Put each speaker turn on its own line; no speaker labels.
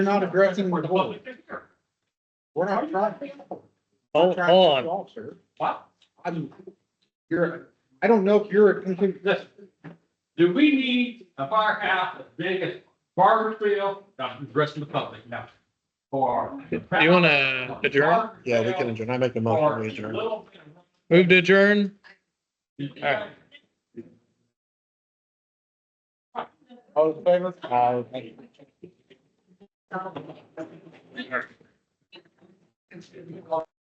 We're not addressing the
For the
board.
public to hear.
We're not trying. trying
Hold,
to
hold
cut
on.
you off, sir.
What?
I'm, you're, I don't know if you're, a-
Listen, do we need a firehouse as big as Barbersville, not to address the public, no? Or.
Do you want to adjourn?
Yeah, we can adjourn. I make a motion,
Or
we
even
adjourn.
little.
Move to adjourn?
bit of-
all in favor?